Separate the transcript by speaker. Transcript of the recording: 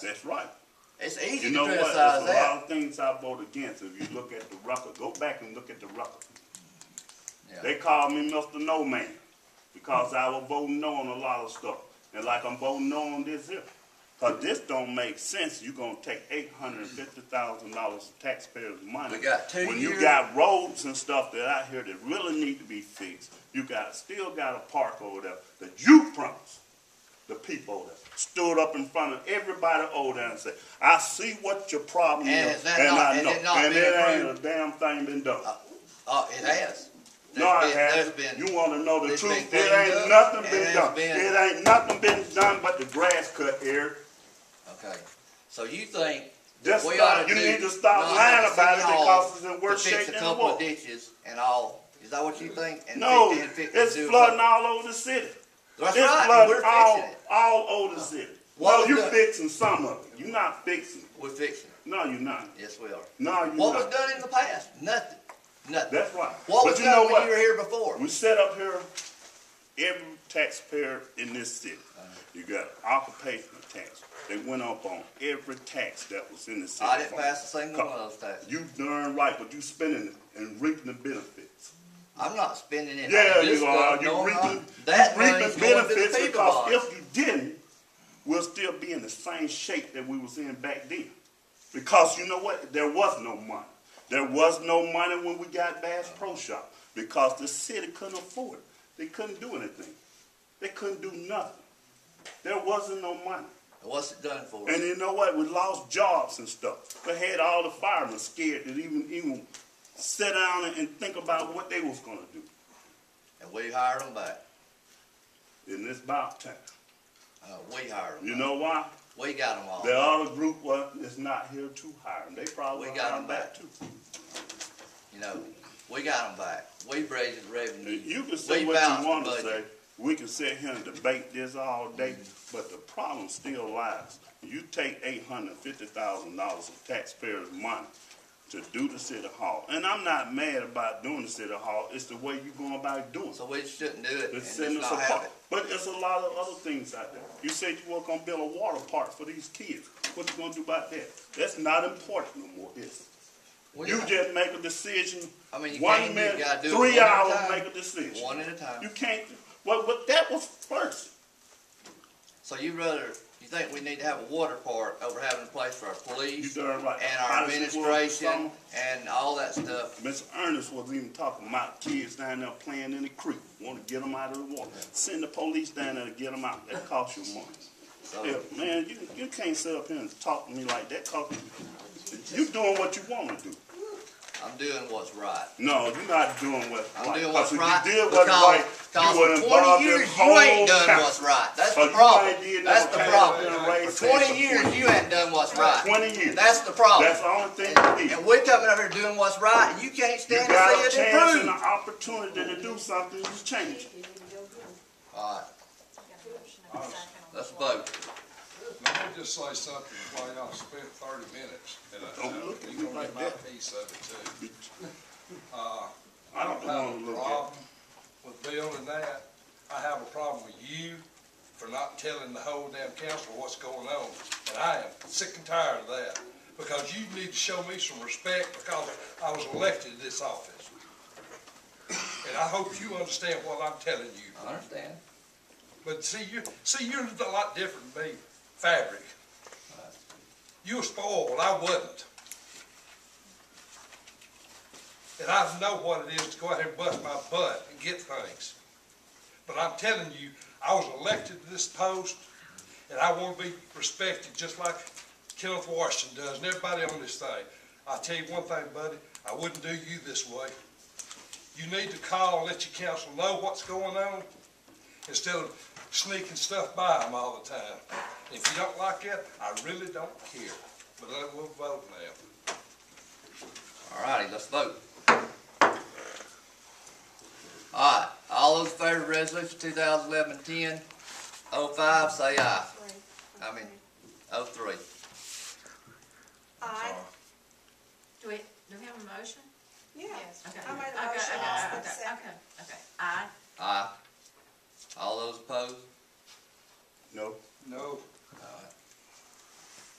Speaker 1: That's right.
Speaker 2: It's easy
Speaker 1: You know
Speaker 2: to
Speaker 1: what? There's
Speaker 2: criticize
Speaker 1: a
Speaker 2: that.
Speaker 1: lot of things I vote against. If you look at the record, go back and look at the record.
Speaker 2: Yeah.
Speaker 1: They called me Mr. No Man because I was voting no on a lot of stuff. And like I'm voting no on this here. Because this don't make sense. You're going to take $850,000 of taxpayers' money.
Speaker 2: We got two
Speaker 1: When you
Speaker 2: years.
Speaker 1: got roads and stuff that out here that really need to be fixed. You got still got a park over there that you promised the people over there. Stood up in front of everybody over there and said, I see what your problem
Speaker 2: And
Speaker 1: is.
Speaker 2: is that
Speaker 1: and
Speaker 2: not-
Speaker 1: I
Speaker 2: is
Speaker 1: know.
Speaker 2: it not
Speaker 1: and
Speaker 2: being
Speaker 1: it ain't a
Speaker 2: approved?
Speaker 1: damn thing been done.
Speaker 2: Oh, it has.
Speaker 1: No, I
Speaker 2: There's been-
Speaker 1: haven't.
Speaker 2: There's been.
Speaker 1: You wanna know the
Speaker 2: there's
Speaker 1: truth,
Speaker 2: been
Speaker 1: it ain't
Speaker 2: cleanup,
Speaker 1: nothing
Speaker 2: and
Speaker 1: been
Speaker 2: there's
Speaker 1: done.
Speaker 2: been-
Speaker 1: It ain't nothing been done but the grass cut, Eric.
Speaker 2: Okay, so you think that
Speaker 1: Just
Speaker 2: we
Speaker 1: stop-
Speaker 2: ought to
Speaker 1: you
Speaker 2: do
Speaker 1: need to stop
Speaker 2: not
Speaker 1: lying
Speaker 2: have a
Speaker 1: about it
Speaker 2: city hall
Speaker 1: because it's in worse
Speaker 2: to fix
Speaker 1: shape
Speaker 2: a
Speaker 1: than it
Speaker 2: couple of
Speaker 1: was.
Speaker 2: ditches and all. Is that what you think? And
Speaker 1: No,
Speaker 2: 50 and 50
Speaker 1: it's
Speaker 2: do
Speaker 1: flooding
Speaker 2: what-
Speaker 1: all over the city.
Speaker 2: That's
Speaker 1: It's
Speaker 2: right.
Speaker 1: flooding
Speaker 2: We're
Speaker 1: all,
Speaker 2: fixing it. Uh,
Speaker 1: all over the city.
Speaker 2: What
Speaker 1: Well,
Speaker 2: was
Speaker 1: you
Speaker 2: done-
Speaker 1: fixing some of it. You're not fixing it.
Speaker 2: We're fixing it.
Speaker 1: No, you're not.
Speaker 2: Yes, we are.
Speaker 1: No, you're
Speaker 2: What was
Speaker 1: not.
Speaker 2: done in the past? Nothing. Nothing.
Speaker 1: That's right.
Speaker 2: What
Speaker 1: But
Speaker 2: was
Speaker 1: you know
Speaker 2: done when
Speaker 1: what?
Speaker 2: you were here before?
Speaker 1: We set up here every taxpayer in this city.
Speaker 2: Uh-huh.
Speaker 1: You got occupational tax. They went up on every tax that was in the city.
Speaker 2: I didn't pass a single
Speaker 1: Come.
Speaker 2: one of those taxes.
Speaker 1: You darn right, but you spending it and reaping the benefits.
Speaker 2: I'm not spending it.
Speaker 1: Yeah,
Speaker 2: on this
Speaker 1: you are.
Speaker 2: stuff,
Speaker 1: You
Speaker 2: no, I'm
Speaker 1: reaping,
Speaker 2: not. That
Speaker 1: you reaping
Speaker 2: money's going to the
Speaker 1: benefits
Speaker 2: people
Speaker 1: because
Speaker 2: box.
Speaker 1: if you didn't, we'll still be in the same shape that we was in back then. Because you know what? There was no money. There was no money when we got Bass Pro Shop because the city couldn't afford it. They couldn't do anything. They couldn't do nothing. There wasn't no money.
Speaker 2: What's it done for?
Speaker 1: And you know what? We lost jobs and stuff. We had all the firemen scared to even even sit down and, and think about what they was gonna do.
Speaker 2: And we hired them back.
Speaker 1: And it's about time.
Speaker 2: Uh, we hired them.
Speaker 1: You know why?
Speaker 2: We got them all.
Speaker 1: The other group was is not here to hire them. They probably
Speaker 2: We got
Speaker 1: hired
Speaker 2: 'em
Speaker 1: back
Speaker 2: back.
Speaker 1: too.
Speaker 2: You know, we got them back. We raised the revenue.
Speaker 1: You can say
Speaker 2: We
Speaker 1: what
Speaker 2: balanced
Speaker 1: you
Speaker 2: the
Speaker 1: want to
Speaker 2: budget.
Speaker 1: say. We can sit here and debate this all day, but the problem still lies. You take eight hundred fifty thousand dollars of taxpayers' money to do the city hall, and I'm not mad about doing the city hall. It's the way you going about doing. it.
Speaker 2: So we shouldn't do it
Speaker 1: It's
Speaker 2: and
Speaker 1: setting
Speaker 2: just
Speaker 1: us
Speaker 2: not have
Speaker 1: apart.
Speaker 2: it.
Speaker 1: But there's a lot of other things out there. You said you were gonna build a water park for these kids. What you gonna do about that? That's not important no more, is it?
Speaker 2: Well,
Speaker 1: You
Speaker 2: yeah.
Speaker 1: just make a decision.
Speaker 2: I mean, you
Speaker 1: one
Speaker 2: can't, you
Speaker 1: minute,
Speaker 2: gotta do it
Speaker 1: three
Speaker 2: one at a
Speaker 1: hours,
Speaker 2: time.
Speaker 1: make a decision.
Speaker 2: One at a time.
Speaker 1: You can't. Well, but that was first.
Speaker 2: So you rather, you think we need to have a water park over having a place for our
Speaker 1: You
Speaker 2: police
Speaker 1: darn right.
Speaker 2: and our
Speaker 1: Honestly, well,
Speaker 2: administration and all that stuff?
Speaker 1: some- Mr. Ernest was even talking about kids down there playing in the creek. Want to get them out of the water. Send the police down there to get them out. That costs you money.
Speaker 2: So,
Speaker 1: Yeah, man, you, you can't sit up here and talk to me like that. Cause you doing what you want to do.
Speaker 2: I'm doing what's right.
Speaker 1: No, you're not doing what's
Speaker 2: I'm
Speaker 1: right.
Speaker 2: doing
Speaker 1: 'Cause
Speaker 2: what's right
Speaker 1: If you did
Speaker 2: because,
Speaker 1: what's right,
Speaker 2: because
Speaker 1: you would
Speaker 2: for
Speaker 1: involve
Speaker 2: 20
Speaker 1: your
Speaker 2: years you
Speaker 1: whole
Speaker 2: ain't done
Speaker 1: county.
Speaker 2: what's right. That's
Speaker 1: So
Speaker 2: the
Speaker 1: you
Speaker 2: problem.
Speaker 1: ain't did
Speaker 2: That's the
Speaker 1: nothing. Been
Speaker 2: problem.
Speaker 1: raised
Speaker 2: For 20
Speaker 1: since
Speaker 2: years you ain't done what's right.
Speaker 1: 20 years.
Speaker 2: That's the problem.
Speaker 1: That's the only thing you need.
Speaker 2: And we're coming over here doing what's right, and you can't
Speaker 1: You
Speaker 2: stand
Speaker 1: got
Speaker 2: to
Speaker 1: a
Speaker 2: see it
Speaker 1: chance and an
Speaker 2: improved.
Speaker 1: opportunity to do something, you change it.
Speaker 2: All right, let's
Speaker 3: That's
Speaker 2: vote.
Speaker 4: Let me just say something, Clay, I spent thirty minutes, and I,
Speaker 1: Don't look at me
Speaker 4: you're gonna
Speaker 1: like
Speaker 4: get my
Speaker 1: that.
Speaker 4: piece of it too.
Speaker 1: I don't
Speaker 4: have
Speaker 1: want
Speaker 4: a
Speaker 1: to look at.
Speaker 2: uh,
Speaker 4: problem with building that, I have a problem with you for not telling the whole damn council what's going on, and I am sick and tired of that, because you need to show me some respect, because I was elected to this office. And I hope you understand what I'm telling you.
Speaker 2: I understand.
Speaker 4: But see, you, see, you're a lot different than me, fabric. You were spoiled, I wasn't. And I know what it is to go out here and bust my butt and get things. But I'm telling you, I was elected to this post, and I want to be respected just like Kenneth Washington does and everybody on this thing. I tell you one thing, buddy, I wouldn't do you this way. You need to call and let your council know what's going on instead of sneaking stuff by them all the time. If you don't like that, I really don't care, but I will vote now.
Speaker 2: All righty, let's vote. All right, all those in favor of resolution 2011-10-05 say aye. I mean, oh three.
Speaker 5: I,
Speaker 3: Do we, do we have a motion?
Speaker 5: yeah,
Speaker 3: Okay.
Speaker 5: I made
Speaker 3: Okay,
Speaker 5: a motion,
Speaker 3: okay,
Speaker 5: I
Speaker 3: okay,
Speaker 5: second.
Speaker 3: Okay, okay, aye.
Speaker 2: Aye. All those opposed?
Speaker 1: No,
Speaker 4: No,